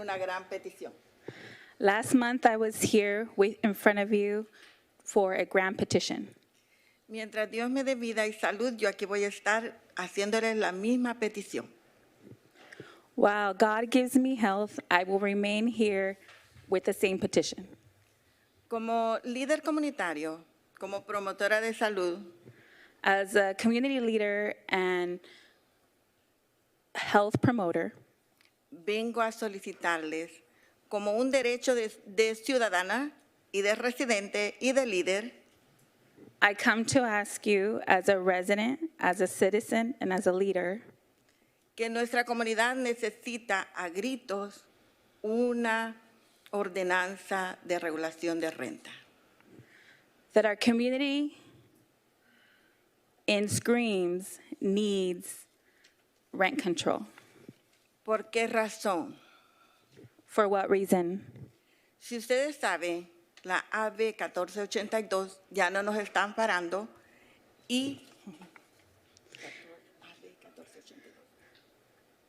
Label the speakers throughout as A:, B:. A: una gran petición.
B: Last month, I was here with, in front of you for a grand petition.
A: Mientras Dios me dé vida y salud, yo aquí voy a estar haciéndoles la misma petición.
B: While God gives me health, I will remain here with the same petition.
A: Como líder comunitario, como promotora de salud,
B: As a community leader and health promoter,
A: vengo a solicitarles como un derecho de, de ciudadana y de residente y de líder
B: I come to ask you, as a resident, as a citizen, and as a leader,
A: que nuestra comunidad necesita a gritos una ordenanza de regulación de renta.
B: that our community in screams needs rent control.
A: ¿Por qué razón?
B: For what reason?
A: Si ustedes saben, la AB 1482 ya no nos están parando y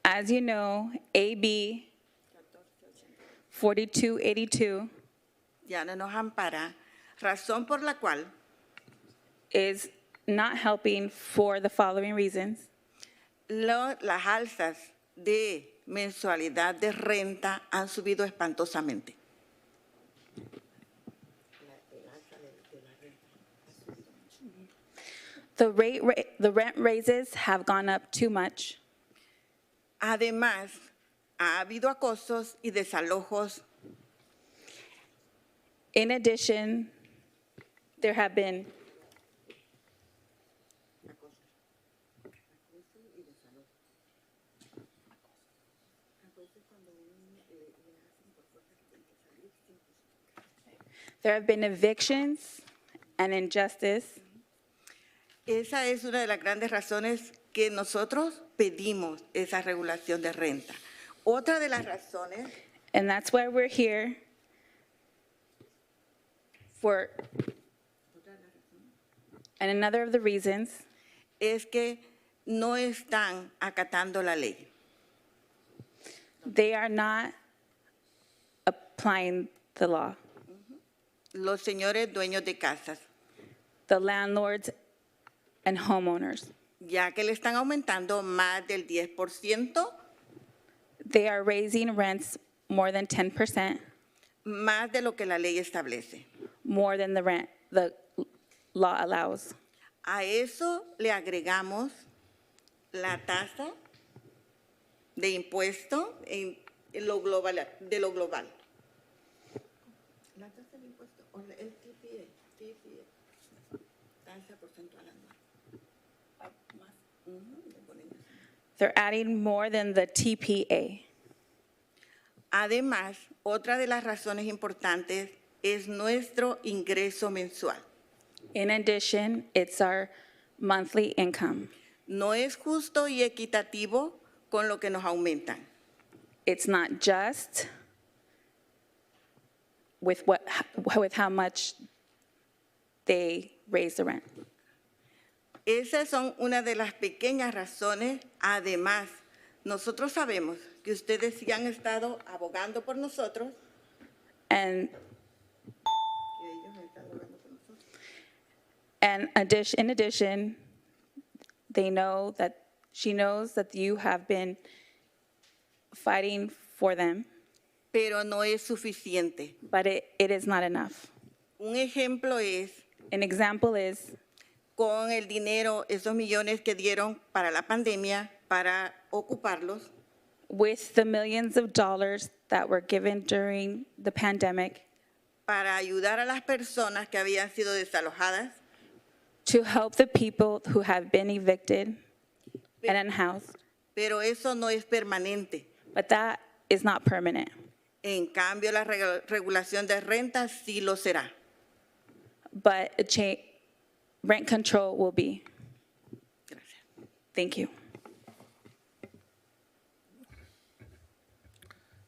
B: As you know, AB 4282
A: ya no nos ampara, razón por la cual
B: is not helping for the following reasons.
A: lo- las alzas de mensualidad de renta han subido espantosamente.
B: The rate, ra- the rent raises have gone up too much.
A: Además, ha habido acosos y desalojos
B: In addition, there have been There have been evictions and injustice.
A: Esa es una de las grandes razones que nosotros pedimos esa regulación de renta. Otra de las razones
B: And that's why we're here for, and another of the reasons
A: es que no están acatando la ley.
B: they are not applying the law.
A: Los señores dueños de casas,
B: The landlords and homeowners,
A: ya que le están aumentando más del 10%,
B: they are raising rents more than 10%,
A: más de lo que la ley establece.
B: more than the rent, the law allows.
A: A eso le agregamos la tasa de impuesto en en lo global, de lo global. La tasa de impuesto, o el TPE, tasa porcentual anual.
B: They're adding more than the TPA.
A: Además, otra de las razones importantes es nuestro ingreso mensual.
B: In addition, it's our monthly income.
A: No es justo y equitativo con lo que nos aumentan.
B: it's not just with what, with how much they raise the rent.
A: Esas son una de las pequeñas razones. Además, nosotros sabemos que ustedes sí han estado abogando por nosotros.
B: And, and addition, in addition, they know that, she knows that you have been fighting for them,
A: Pero no es suficiente.
B: but it, it is not enough.
A: Un ejemplo es
B: An example is
A: con el dinero, esos millones que dieron para la pandemia, para ocuparlos,
B: with the millions of dollars that were given during the pandemic,
A: para ayudar a las personas que habían sido desalojadas,
B: to help the people who have been evicted and unhoused,
A: pero eso no es permanente.
B: but that is not permanent.
A: En cambio, la regu- regulación de renta sí lo será.
B: But a cha- rent control will be.
A: Gracias.
B: Thank you.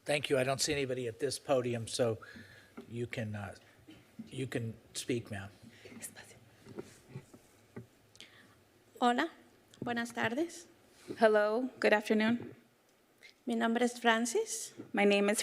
C: Thank you. I don't see anybody at this podium, so you can, uh, you can speak, ma'am.
D: Hola, buenas tardes.
B: Hello, good afternoon.
D: Mi nombre es Francis.
B: My name is